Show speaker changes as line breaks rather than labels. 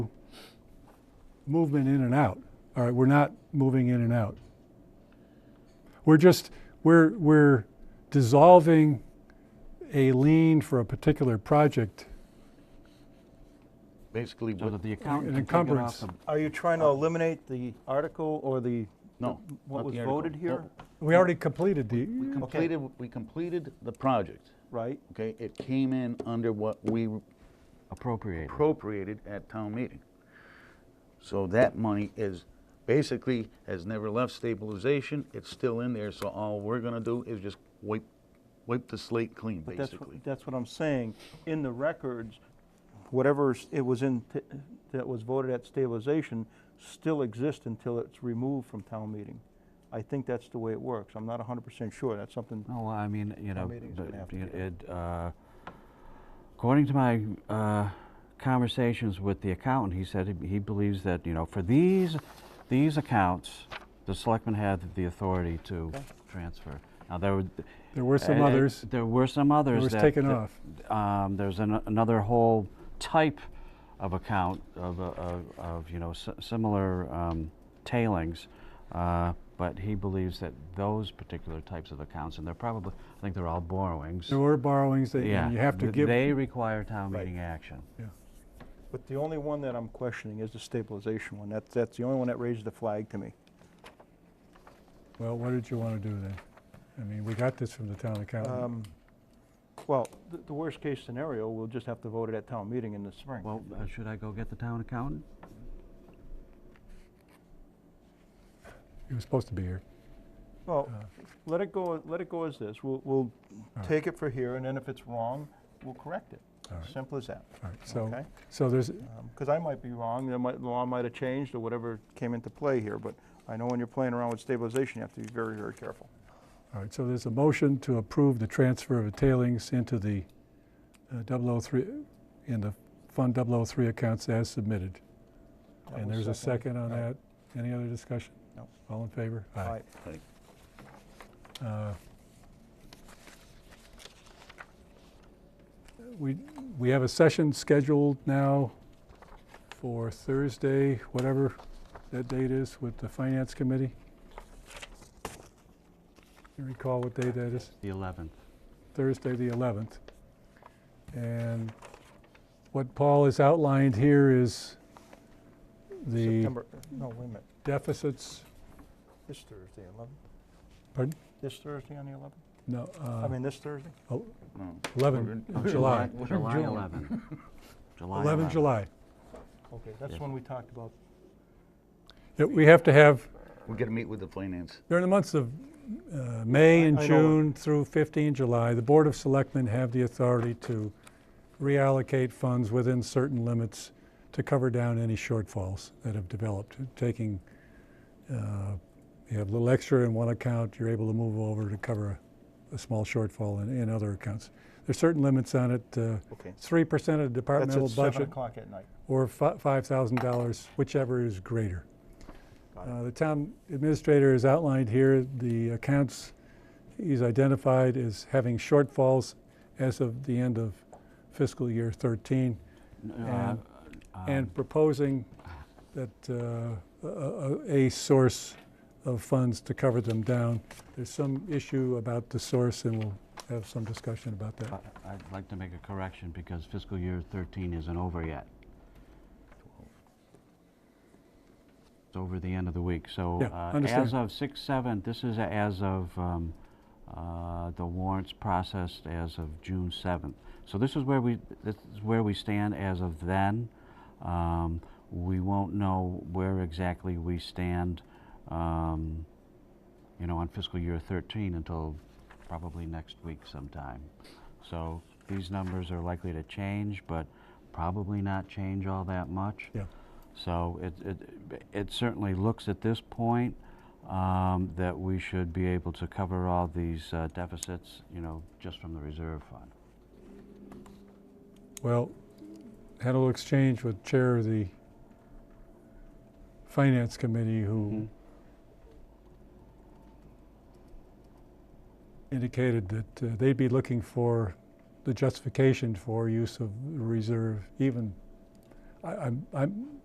movement in and out. All right, we're not moving in and out. We're just we're we're dissolving a lien for a particular project.
Basically,
So
what,
that the accountant
An
can take it off
encumbrance.
the,
Are you trying
Uh,
to eliminate the article or the,
no.
what
Not
was
the article.
voted here?
We already completed the
We completed, we completed the project,
Right?
okay? It came in under what we
appropriate.
appropriated at town meeting. So that money is, basically, has never left stabilization, it's still in there, so all we're gonna do is just wipe, wipe the slate clean,
But that's, what-
basically.
that's what I'm saying. In the records, whatever s- it was in, t- that was voted at stabilization still exists until it's removed from town meeting. I think that's the way it works. I'm not hundred percent sure. That's something,
No, I mean, you know,
meeting's
but
gonna have to
it-
be
it, uh, according to my uh, conversations with the accountant, he said he- he believes that, you know, for these, these accounts, the selectmen had the authority to transfer. Now, there were.
There were some
uh, uh,
others.
There were some others.
was
that-
taken
that-
off.
um, There's an- another whole type of account of, uh, of- of, you know, si- similar um, tailings. uh, But he believes that those particular types of accounts, and they're probably, I think they're all borrowings.
there were borrowings that
Yeah,
you have to
th-
give.
They require town
Right.
meeting action.
but the only one that I'm questioning is the stabilization one. That's, that's the only one that raised the flag to me.
well, what did you want to do then? I mean, we got this from the town accountant.
Um, Well, the, the worst case scenario, we'll just have to vote it at town meeting in the spring.
Well, uh, should I go get the town accountant?
he was supposed to be here. Uh,
Well, let it go, let it go as this. We'll, we'll
right.
take it for here, and then if it's wrong, we'll correct it.
All right.
Simple as that.
All right. So
Okay.
so there's
Because I might be wrong, there might, the law might have changed or whatever came into play here, but I know when you're playing around with stabilization, you have to be very, very careful.
all right. So there's a motion to approve the transfer of the tailings into the uh, 003 in the fund 003 accounts as submitted.
That
And
was
there's a second on
Right.
that. Any other discussion?
No.
All in favor?
All right.
Like,
Uh, We, we have a session scheduled now for Thursday, whatever that date is, with the Finance Committee. You recall what day that is?
The 11th.
Thursday, the 11th. And what Paul has outlined here is the
September, no, wait a minute,
deficits,
this Thursday, 11?
pardon?
This Thursday on the 11th?
No,
I
uh,
mean, this Thursday?
el-
no.
11,
We're in-
July.
we're in
July
June.
11th. July
11 July.
Okay, that's
Yes.
when we talked about,
Yeah, We have to have,
We gotta meet with the finance.
during the months of uh, May and
I know.
June through 15 July, the Board of Selectmen have the authority to reallocate funds within certain limits to cover down any shortfalls that have developed, taking, uh, you have a little extra in one account, you're able to move over to cover a- a small shortfall in, in other accounts. There's certain limits on it, uh,
okay.
3% of the
That's
departmental
at 7
budget
o'clock at night.
or fi- $5,000, whichever is greater.
Got it.
Uh, The town administrator has outlined here the accounts he's identified as having shortfalls as of the end of fiscal year 13,
Uh,
and proposing that uh, a- a a source of funds to cover them down. There's some issue about the source, and we'll have some discussion about that.
But I'd like to make a correction because fiscal year 13 isn't over yet. It's over the end of the week, so.
Yeah,
uh,
understand.
As of 6/7, this is as of um, uh, the warrants processed as of June 7th. So this is where we, this is where we stand as of then. Um, We won't know where exactly we stand, um, you know, on fiscal year 13 until probably next week sometime. So these numbers are likely to change, but probably not change all that much.
Yeah.
So it, it, it certainly looks at this point um, that we should be able to cover all these uh, deficits, you know, just from the reserve fund.
Well, had a little exchange with Chair of the Finance Committee, who indicated that uh, they'd be looking for the justification for use of reserve, even, I- I'm, I'm